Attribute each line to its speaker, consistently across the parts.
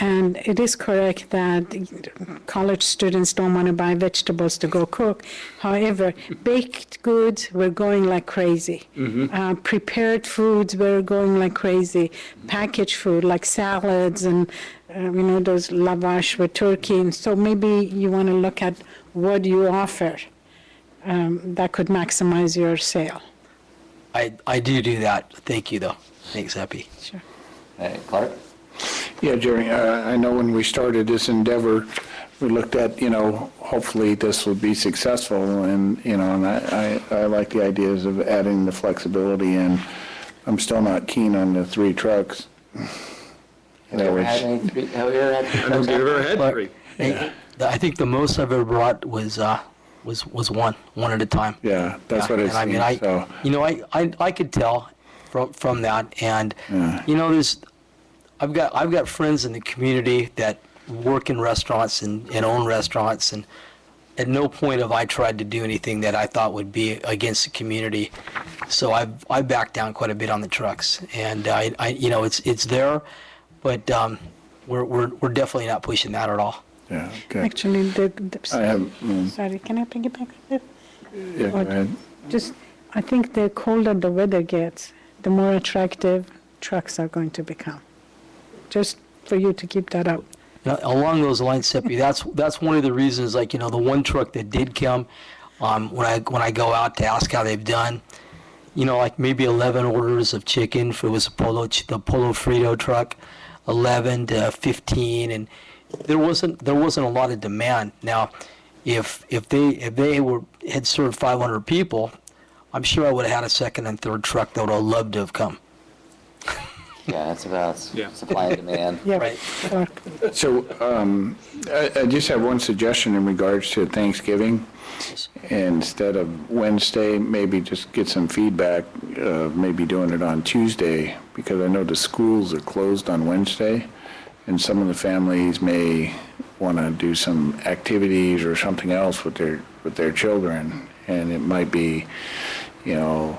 Speaker 1: And it is correct that college students don't want to buy vegetables to go cook. However, baked goods were going like crazy.
Speaker 2: Mm-hmm.
Speaker 1: Uh, prepared foods were going like crazy. Packaged food like salads and uh, you know those lavash with turkey. And so maybe you want to look at what you offer um, that could maximize your sale.
Speaker 3: I, I do do that. Thank you, though. Thanks, Epi.
Speaker 1: Sure.
Speaker 4: Hey, Clark?
Speaker 2: Yeah, Jerry, uh, I know when we started this endeavor, we looked at, you know, hopefully this will be successful, and, you know, and I, I I like the ideas of adding the flexibility, and I'm still not keen on the three trucks.
Speaker 4: Have you ever had any, three- have you ever had three trucks? out?
Speaker 5: ever had three.
Speaker 3: Hey, the- I think the most I've ever brought was uh, was was one, one at a time.
Speaker 2: Yeah, that's
Speaker 3: Yeah,
Speaker 2: what it
Speaker 3: and I mean, I,
Speaker 2: seems, so.
Speaker 3: you know, I, I, I could tell from from that, and
Speaker 2: Yeah.
Speaker 3: you know, there's, I've got I've got friends in the community that work in restaurants and, and own restaurants, and at no point have I tried to do anything that I thought would be against the community. So I've I backed down quite a bit on the trucks, and I, I you know, it's it's there, but um, we're we're we're definitely not pushing that at all.
Speaker 2: Yeah, okay.
Speaker 1: Actually, the,
Speaker 2: I
Speaker 1: the,
Speaker 2: have, mm,
Speaker 1: sorry, can I piggyback on that?
Speaker 2: yeah, go ahead.
Speaker 1: Just, I think the colder the weather gets, the more attractive trucks are going to become. Just for you to keep that up.
Speaker 3: Now, along those lines, Seppi, that's, that's one of the reasons, like, you know, the one truck that did come, um, when I, when I go out to ask how they've done, you know, like maybe 11 orders of chicken, if it was a Polo, ch- the Polo Frito truck, 11 to 15, and there wasn't, there wasn't a lot of demand. Now, if, if they, if they were, had served 500 people, I'm sure I would have had a second and third truck that would have loved to have come.
Speaker 4: Yeah, that's about s-
Speaker 5: Yeah.
Speaker 4: supply and demand.
Speaker 1: Yeah.
Speaker 3: Right.
Speaker 1: or-
Speaker 2: So um, I I just have one suggestion in regards to Thanksgiving. Instead of Wednesday, maybe just get some feedback, uh, maybe doing it on Tuesday, because I know the schools are closed on Wednesday, and some of the families may want to do some activities or something else with their, with their children, and it might be, you know,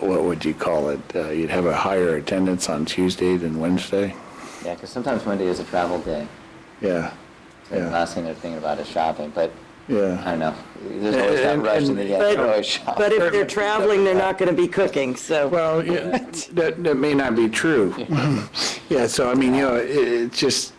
Speaker 2: what would you call it? Uh, You'd have a higher attendance on Tuesday than Wednesday?
Speaker 4: Yeah, because sometimes Monday is a travel day.
Speaker 2: Yeah,
Speaker 4: So The
Speaker 2: yeah,
Speaker 4: last thing they're thinking about is shopping, but I
Speaker 2: yeah.
Speaker 4: don't know. There's always that
Speaker 2: And-
Speaker 4: rush and
Speaker 2: and-
Speaker 4: then you have
Speaker 6: But,
Speaker 4: to always shop.
Speaker 6: but if they're traveling, they're not going to be cooking, so.
Speaker 2: Well, yeah, that, that may not be true. Yeah, so I mean, you know, it, it just,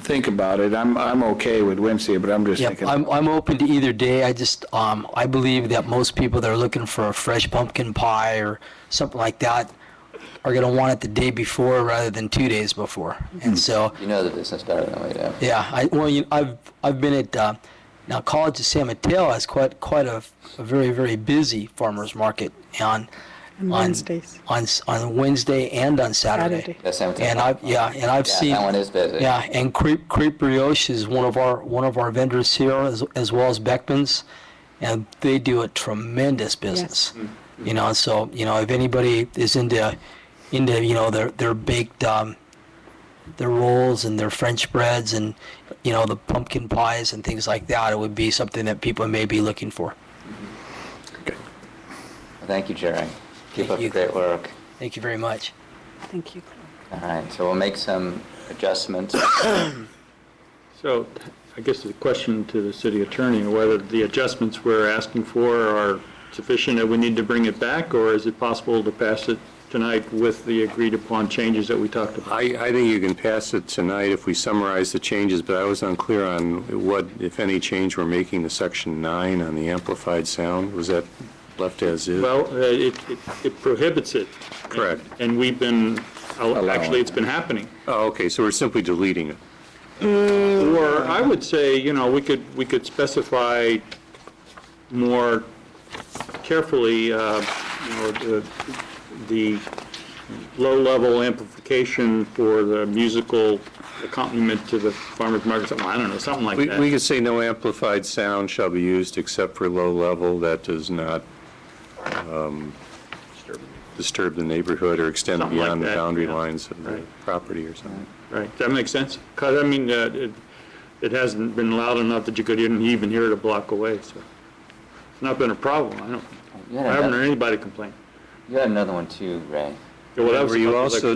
Speaker 2: think about it. I'm, I'm okay with Wednesday, but I'm just
Speaker 3: Yep,
Speaker 2: thinking.
Speaker 3: I'm, I'm open to either day. I just, um, I believe that most people that are looking for a fresh pumpkin pie or something like that are gonna want it the day before rather than two days before. And so,
Speaker 4: You know the business better than we do.
Speaker 3: yeah, I, well, you, I've, I've been at, uh, now College of San Mateo has quite, quite a, a very, very busy farmer's market on, on.
Speaker 1: On Wednesdays.
Speaker 3: On, s- on Wednesday and on Saturday.
Speaker 1: Saturday.
Speaker 4: The same thing.
Speaker 3: And I've, yeah, and I've
Speaker 4: Yeah,
Speaker 3: seen.
Speaker 4: that one is busy.
Speaker 3: Yeah, and Crepe, Crepe Brioche is one of our, one of our vendors here, as, as well as Beckman's, and they do a tremendous business.
Speaker 4: Mm,
Speaker 3: You know, so, you know, if anybody is into, into, you know, their, their baked, um, their rolls and their French breads and, you know, the pumpkin pies and things like that, it would be something that people may be looking for.
Speaker 4: Thank you, Jerry. Keep
Speaker 3: Thank
Speaker 4: up the
Speaker 3: you.
Speaker 4: great work.
Speaker 3: Thank you very much.
Speaker 1: Thank you.
Speaker 4: All right, so we'll make some adjustments.
Speaker 5: So I guess the question to the city attorney, whether the adjustments we're asking for are sufficient and we need to bring it back, or is it possible to pass it tonight with the agreed-upon changes that we talked about?
Speaker 7: I, I think you can pass it tonight if we summarize the changes, but I was unclear on what, if any, change we're making to section nine on the amplified sound. Was that left as is?
Speaker 5: Well, uh, it it- it prohibits it.
Speaker 7: Correct.
Speaker 5: And we've been, uh, actually, it's been happening.
Speaker 7: Oh, okay, so we're simply deleting it.
Speaker 5: Or I would say, you know, we could, we could specify more carefully, uh, you know, the- the low-level amplification for the musical accompaniment to the farmer's market, something, I don't know, something like
Speaker 7: We, we
Speaker 5: that.
Speaker 7: could say no amplified sound shall be used except for low level. That does not um, disturb the neighborhood or extend
Speaker 5: Something like
Speaker 7: beyond the
Speaker 5: that,
Speaker 7: boundary
Speaker 5: yeah.
Speaker 7: lines of the
Speaker 5: Right.
Speaker 7: property or something.
Speaker 5: Right, does that make sense? Because, I mean, uh, it it hasn't been loud enough that you could even even hear it a block away, so it's not been a problem, I don't,
Speaker 4: You had
Speaker 5: I haven't
Speaker 4: another-
Speaker 5: heard anybody complain.
Speaker 4: you had another one too, Ray.
Speaker 5: Yeah, well, that was
Speaker 7: Were you
Speaker 5: something like-
Speaker 7: also